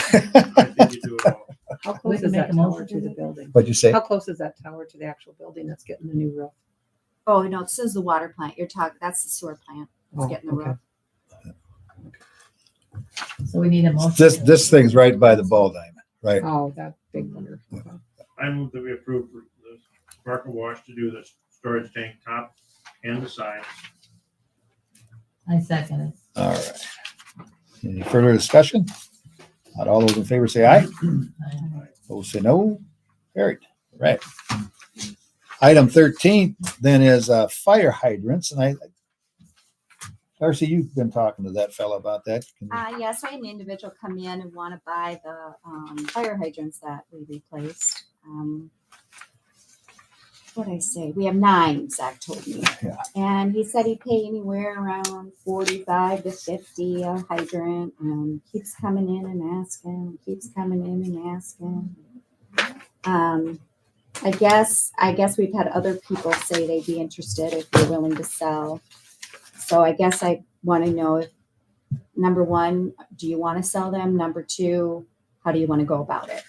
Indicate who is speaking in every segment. Speaker 1: I think you do it all.
Speaker 2: How
Speaker 3: We
Speaker 2: close
Speaker 3: can
Speaker 2: is
Speaker 3: make
Speaker 2: that
Speaker 3: a
Speaker 2: tower
Speaker 3: motion
Speaker 2: to
Speaker 3: to
Speaker 2: the
Speaker 3: that.
Speaker 2: building?
Speaker 4: What'd you say?
Speaker 2: How close is that tower to the actual building that's getting the new roof?
Speaker 5: Oh, no, it says the water plant. You're talking, that's the sewer plant. It's
Speaker 2: Oh,
Speaker 5: getting the
Speaker 2: okay.
Speaker 5: roof.
Speaker 3: So we need a motion.
Speaker 4: This, this thing's right by the ball diamond, right?
Speaker 2: Oh, that big one. Okay.
Speaker 1: I move that we approve for the Parker Wash to do the storage tank top and the sides.
Speaker 3: I second it.
Speaker 4: All right. Any further discussion? Not all those in favor say aye.
Speaker 3: Aye.
Speaker 4: Those say no. Carried. All Right. Item thirteen then is uh, fire hydrants and I Darcy, you've been talking to that fellow about that. Can you-
Speaker 5: Uh, yes, I had an individual come in and want to buy the, um, fire hydrants that we replaced. Um, What'd I say? We have nine, Zach told me.
Speaker 4: Yeah.
Speaker 5: And he said he'd pay anywhere around forty-five to fifty a hydrant. Um, keeps coming in and asking, keeps coming in and asking. Um, I guess, I guess we've had other people say they'd be interested if we're willing to sell. So I guess I want to know if number one, do you want to sell them? Number two, how do you want to go about it?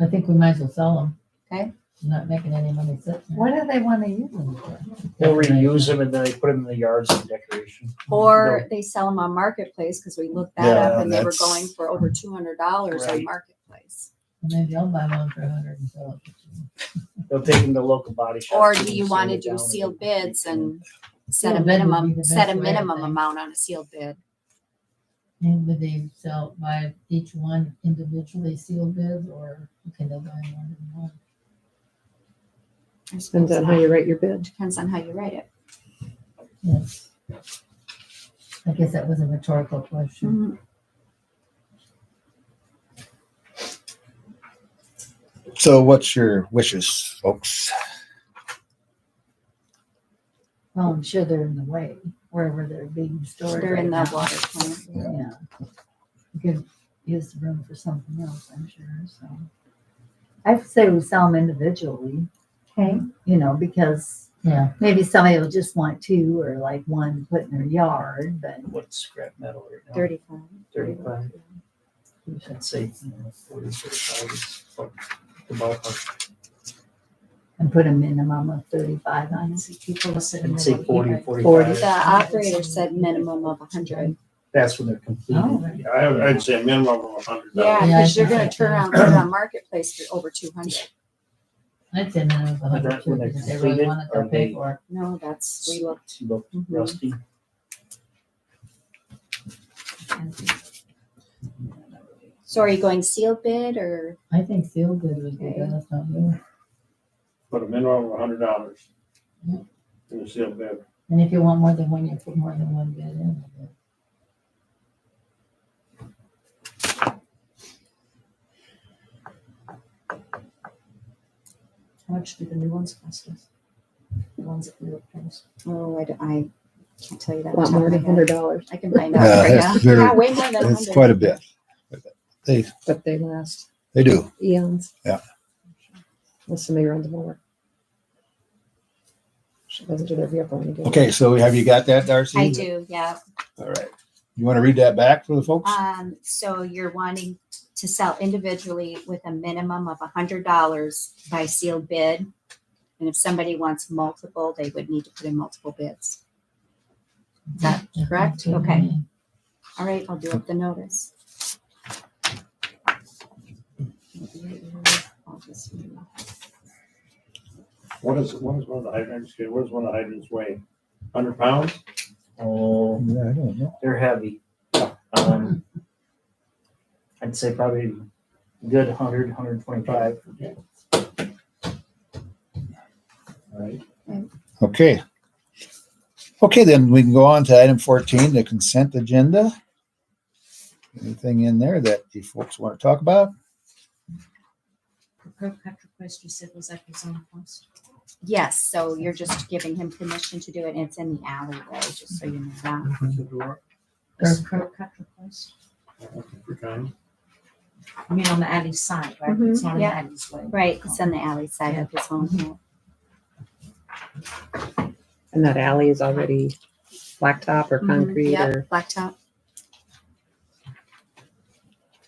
Speaker 3: I think we might as well sell them.
Speaker 5: Okay.
Speaker 3: Not making any money sitting there. What do they want to use them for?
Speaker 6: They'll reuse them and then they put them in the yards as decoration.
Speaker 5: Or they sell them on marketplace because we looked that
Speaker 4: Yeah,
Speaker 5: up and they were
Speaker 4: that's-
Speaker 5: going for over two hundred dollars on
Speaker 6: Right.
Speaker 5: marketplace.
Speaker 3: Maybe I'll buy one for a hundred and sell it.
Speaker 6: They'll take them to local body shops.
Speaker 5: Or
Speaker 6: and
Speaker 5: do you
Speaker 6: sand
Speaker 5: want to
Speaker 6: it down
Speaker 5: do
Speaker 6: and-
Speaker 5: sealed bids and set
Speaker 3: Sealed
Speaker 5: a
Speaker 3: bid would be
Speaker 5: minimum,
Speaker 3: the
Speaker 5: set a
Speaker 3: best way, I
Speaker 5: minimum
Speaker 3: think.
Speaker 5: amount on a sealed bid?
Speaker 3: And would they sell by each one individually sealed bids or can they buy more than one?
Speaker 5: I
Speaker 2: Depends
Speaker 5: suppose
Speaker 2: on how
Speaker 5: that
Speaker 2: you write your bid.
Speaker 5: Depends on how you write it.
Speaker 3: Yes. I guess that was a rhetorical question.
Speaker 4: So what's your wishes, folks?
Speaker 3: Well, I'm sure they're in the way, wherever they're being stored.
Speaker 5: They're in
Speaker 3: right
Speaker 5: the
Speaker 3: now.
Speaker 5: water plant.
Speaker 3: Yeah. You could use the room for something else, I'm sure, so.
Speaker 7: I'd say we sell them individually. Okay. You know, because
Speaker 3: Yeah,
Speaker 7: maybe somebody will just want two or like one to put in their yard, but
Speaker 6: What's scrap metal right now?
Speaker 5: Thirty-five.
Speaker 6: Thirty-five, I'd say you know, forty, thirty-five is what the ballpark.
Speaker 7: and put a minimum of thirty-five on it.
Speaker 3: honestly, people are sitting.
Speaker 6: I'd
Speaker 3: there
Speaker 6: say
Speaker 3: like,
Speaker 6: forty,
Speaker 3: "Yeah,
Speaker 6: forty-five.
Speaker 5: The operator said minimum of a hundred.
Speaker 6: That's when they're
Speaker 3: Oh,
Speaker 6: completed.
Speaker 3: right.
Speaker 6: Yeah,
Speaker 1: I, would- I'd say minimum of a hundred
Speaker 5: Yeah,
Speaker 1: dollars.
Speaker 3: Yeah, I
Speaker 5: because you're
Speaker 3: think
Speaker 5: gonna
Speaker 3: so.
Speaker 5: turn around, put it on marketplace for over two hundred.
Speaker 3: I'd say minimum of a hundred,
Speaker 6: That when they're
Speaker 3: because they really
Speaker 6: completed,
Speaker 3: want it,
Speaker 6: are
Speaker 3: they'll pay
Speaker 6: they-
Speaker 3: for it.
Speaker 5: No, that's, we looked.
Speaker 6: She looked
Speaker 5: Mhm.
Speaker 6: rusty.
Speaker 5: So are you going sealed bid or?
Speaker 3: I think sealed bid would be good, if not you.
Speaker 1: Put a minimum of a hundred dollars.
Speaker 3: Yeah.
Speaker 1: In the sealed bid.
Speaker 3: And if you want more than one, you put more than one bid in. I guess.
Speaker 2: How much do the new ones cost us? The ones that we replaced.
Speaker 5: Oh, I, d- I can't tell you that.
Speaker 2: A lot
Speaker 5: off the top
Speaker 2: more
Speaker 5: of
Speaker 2: than
Speaker 5: my head.
Speaker 2: hundred dollars,
Speaker 5: I can find
Speaker 4: Yeah,
Speaker 5: out for
Speaker 4: that's
Speaker 5: you.
Speaker 4: very-
Speaker 5: Yeah, way more than
Speaker 4: It's quite
Speaker 5: hundred.
Speaker 4: a bit. They,
Speaker 2: but they last
Speaker 4: they do.
Speaker 2: eons.
Speaker 4: Yeah.
Speaker 2: Unless somebody runs them over. She doesn't do their vehicle any good.
Speaker 4: Okay, so have you got that, Darcy?
Speaker 5: I do, yeah.
Speaker 4: All right. You want to read that back for the folks?
Speaker 5: Um, so you're wanting to sell individually with a minimum of a hundred dollars by sealed bid. And if somebody wants multiple, they would need to put in multiple bids. Is that
Speaker 3: That's
Speaker 5: correct?
Speaker 3: what I
Speaker 5: Okay.
Speaker 3: mean.
Speaker 5: All right, I'll do up the notice. I'll just-
Speaker 1: What is, what is one of the hydrants, what does one of the hydrants weigh? Hundred pounds?
Speaker 6: Oh,
Speaker 4: Yeah, I don't know.
Speaker 6: they're heavy. Um, I'd say probably a good hundred, hundred twenty-five. Right.
Speaker 4: Okay. Okay, then we can go on to item fourteen, the consent agenda. Anything in there that you folks want to talk about?
Speaker 5: Yes, so you're just giving him permission to do it. It's in the alleyway, just so you know that.
Speaker 1: Is the door?
Speaker 3: Or
Speaker 1: For time.
Speaker 8: I mean, on the alley side, right?
Speaker 3: Mm-hmm.
Speaker 5: Mhm,
Speaker 8: It's not on the
Speaker 5: yeah.
Speaker 8: alley's way.
Speaker 5: Right, it's on the alley side of his home here.
Speaker 2: And that alley is already blacktop or
Speaker 5: Mhm,
Speaker 2: concrete
Speaker 5: Mm-hmm, yep,
Speaker 2: or
Speaker 5: Blacktop.